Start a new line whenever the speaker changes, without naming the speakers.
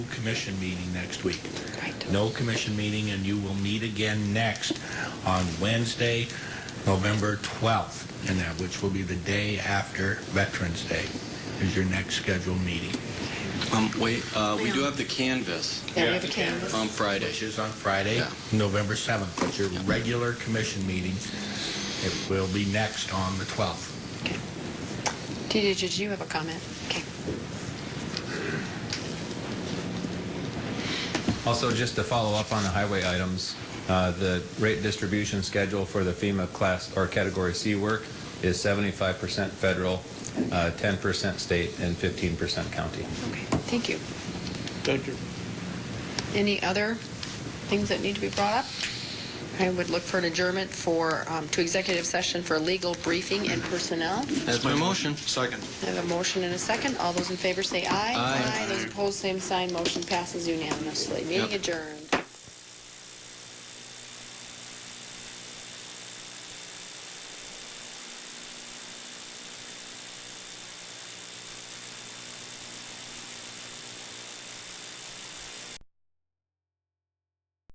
commission meeting next week.
Right.
No commission meeting, and you will meet again next on Wednesday, November 12th, and that, which will be the day after Veterans Day, is your next scheduled meeting,
Um, wait, uh, we do have the canvas
Yeah, we have a canvas.
on Friday.
which is on Friday,
Yeah.
November 7th. But your regular commission meeting, it will be next on the 12th.
Did did you have a comment? Okay.
Also, just to follow up on the highway items, uh, the rate distribution schedule for the FEMA class or category C work is 75% federal, uh, 10% state, and 15% county.
Okay, thank you.
Thank you.
Any other things that need to be brought up? I would look for an adjournment for, um, to executive session for legal briefing and personnel.
That's my motion.
Second.
I have a motion and a second. All those in favor say aye.
Aye.
Those opposed, same sign. Motion passes unanimously. Meeting
Yep.
adjourned.